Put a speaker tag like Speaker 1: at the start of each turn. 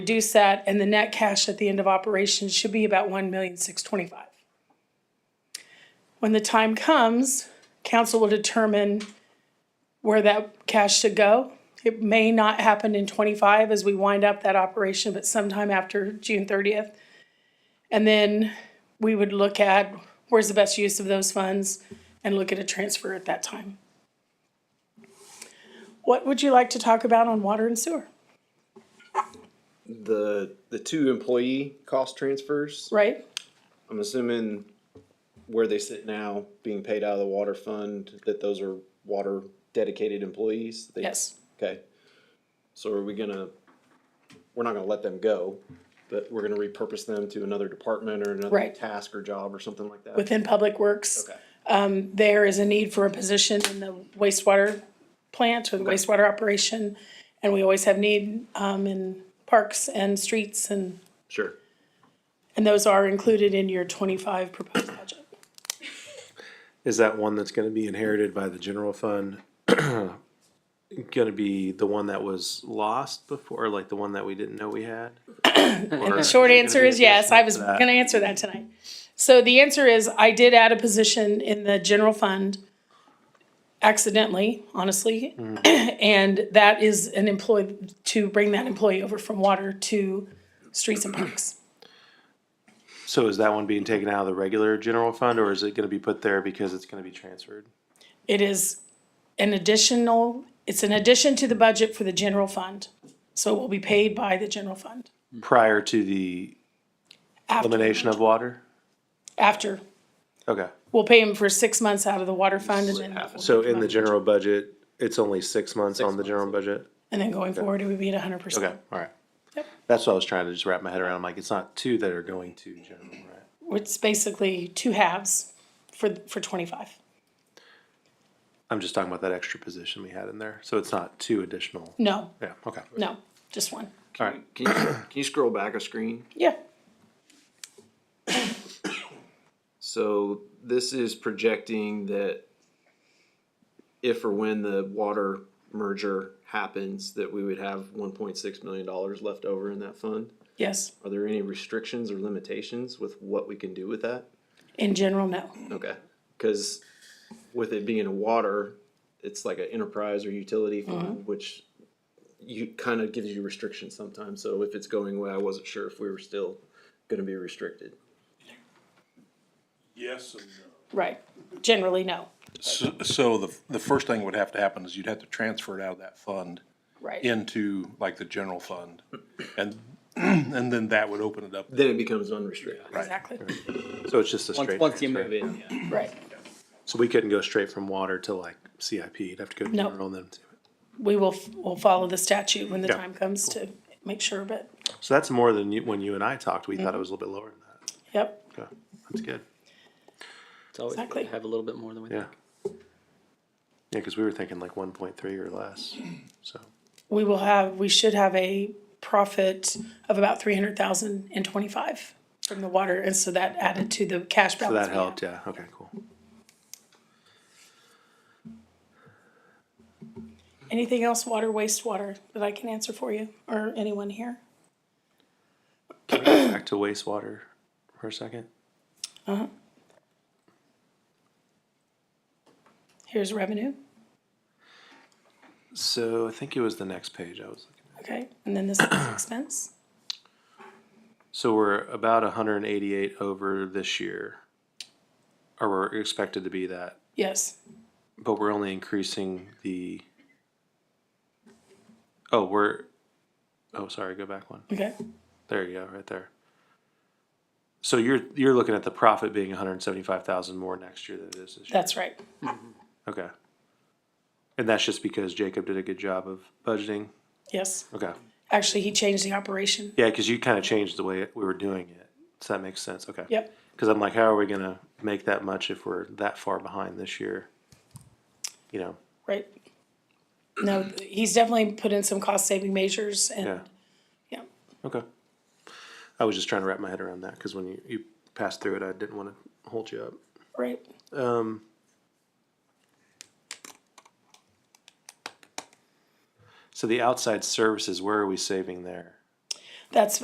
Speaker 1: reduce that, and the net cash at the end of operations should be about one million six twenty-five. When the time comes, council will determine where that cash should go. It may not happen in twenty-five as we wind up that operation, but sometime after June thirtieth. And then we would look at where's the best use of those funds and look at a transfer at that time. What would you like to talk about on water and sewer,
Speaker 2: the the two employee cost transfers.
Speaker 1: right?
Speaker 2: I'm assuming where they sit now, being paid out of the water fund, that those are water dedicated employees. They-
Speaker 1: Yes.
Speaker 2: Okay. So are we gonna? We're not gonna let them go, but we're gonna repurpose them to another department or another
Speaker 1: Right.
Speaker 2: task or job or something like that.
Speaker 1: within Public Works. um,
Speaker 2: okay.
Speaker 1: There is a need for a position in the wastewater plant or the wastewater operation. And we always have need um, in parks and streets and,
Speaker 2: Sure.
Speaker 1: and those are included in your twenty-five proposed budget.
Speaker 3: Is that one that's gonna be inherited by the general fund? Gonna be the one that was lost before, or like the one that we didn't know we had? Or-
Speaker 1: Short answer is yes, I was
Speaker 3: for that?
Speaker 1: gonna answer that tonight. So the answer is, I did add a position in the general fund accidentally, honestly. And that is an employee, to bring that employee over from water to streets and parks.
Speaker 3: So is that one being taken out of the regular general fund, or is it gonna be put there because it's gonna be transferred?
Speaker 1: It is an additional, it's an addition to the budget for the general fund. So it will be paid by the general fund.
Speaker 3: Prior to the
Speaker 1: after-
Speaker 3: elimination of water?
Speaker 1: After.
Speaker 3: Okay,
Speaker 1: We'll pay him for six months out of the water fund and then,
Speaker 3: so in the general budget, it's only six months on the general budget?
Speaker 1: and then going forward, it would be at hundred
Speaker 3: Okay,
Speaker 1: percent.
Speaker 3: alright.
Speaker 1: Yep.
Speaker 3: That's what I was trying to just wrap my head around, I'm like, it's not two that are going to general, right?
Speaker 1: It's basically two halves for, for twenty-five.
Speaker 3: I'm just talking about that extra position we had in there, so it's not two additional.
Speaker 1: No,
Speaker 3: Yeah, okay.
Speaker 1: no, just one.
Speaker 3: All right.
Speaker 2: Can you, can you scroll back a screen?
Speaker 1: Yeah,
Speaker 2: So this is projecting that if or when the water merger happens, that we would have one point six million dollars left over in that fund.
Speaker 1: yes.
Speaker 2: Are there any restrictions or limitations with what we can do with that?
Speaker 1: In general, no.
Speaker 2: Okay, cause with it being a water, it's like an enterprise or utility fund, which you, kinda gives you restrictions sometimes, so if it's going away, I wasn't sure if we were still gonna be restricted.
Speaker 4: Yes and no.
Speaker 1: Right. Generally, no.
Speaker 4: So, so the, the first thing would have to happen is you'd have to transfer it out of that fund
Speaker 1: Right.
Speaker 4: into like the general fund. And, and then that would open it up.
Speaker 2: Then it becomes unrestricted.
Speaker 1: Exactly.
Speaker 3: So it's just a straight.
Speaker 2: Once, once you
Speaker 3: transfer.
Speaker 2: move in, yeah.
Speaker 1: Right.
Speaker 3: So we couldn't go straight from water to like CIP. You'd have to go to
Speaker 1: No.
Speaker 3: general and then. to-
Speaker 1: We will, f- we'll follow the statute when the
Speaker 3: Yeah.
Speaker 1: time comes to make sure, but,
Speaker 3: So that's more than you, when you and I talked, we thought it was a little bit lower than that.
Speaker 1: yep.
Speaker 3: Okay, that's good.
Speaker 5: It's always good
Speaker 1: Exactly.
Speaker 5: to have a little bit more than we
Speaker 3: Yeah.
Speaker 5: think.
Speaker 3: Yeah, because we were thinking like one point three or less. So
Speaker 1: we will have, we should have a profit of about three hundred thousand in twenty-five from the water, and so that added to the cash
Speaker 3: so
Speaker 1: balance.
Speaker 3: that
Speaker 1: we have.
Speaker 3: helped. Yeah. Okay. Cool.
Speaker 1: Anything else, water, wastewater, that I can answer for you, or anyone here?
Speaker 3: Back to wastewater for a second.
Speaker 1: Here's revenue,
Speaker 3: So I think it was the next page I was looking. at.
Speaker 1: okay, and then this is expense,
Speaker 3: So we're about hundred and eighty-eight over this year, or we're expected to be that.
Speaker 1: yes,
Speaker 3: But we're only increasing the. Oh, we're, oh, sorry, go back one.
Speaker 1: okay,
Speaker 3: There you go, right there. So you're, you're looking at the profit being hundred and seventy-five thousand more next year than it is this year.
Speaker 1: that's right,
Speaker 3: Okay. And that's just because Jacob did a good job of budgeting?
Speaker 1: yes.
Speaker 3: Okay.
Speaker 1: Actually, he changed the operation,
Speaker 3: Yeah, because you kind of changed the way we were doing it. So that makes sense, okay.
Speaker 1: yep,
Speaker 3: Because I'm like, how are we gonna make that much if we're that far behind this year? You know,
Speaker 1: right. No, he's definitely put in some cost-saving measures
Speaker 3: yeah,
Speaker 1: and, yeah,
Speaker 3: okay. I was just trying to wrap my head around that because when you, you passed through it, I didn't want to hold you up.
Speaker 1: right,
Speaker 3: Um, so the outside services, where are we saving there?
Speaker 1: That's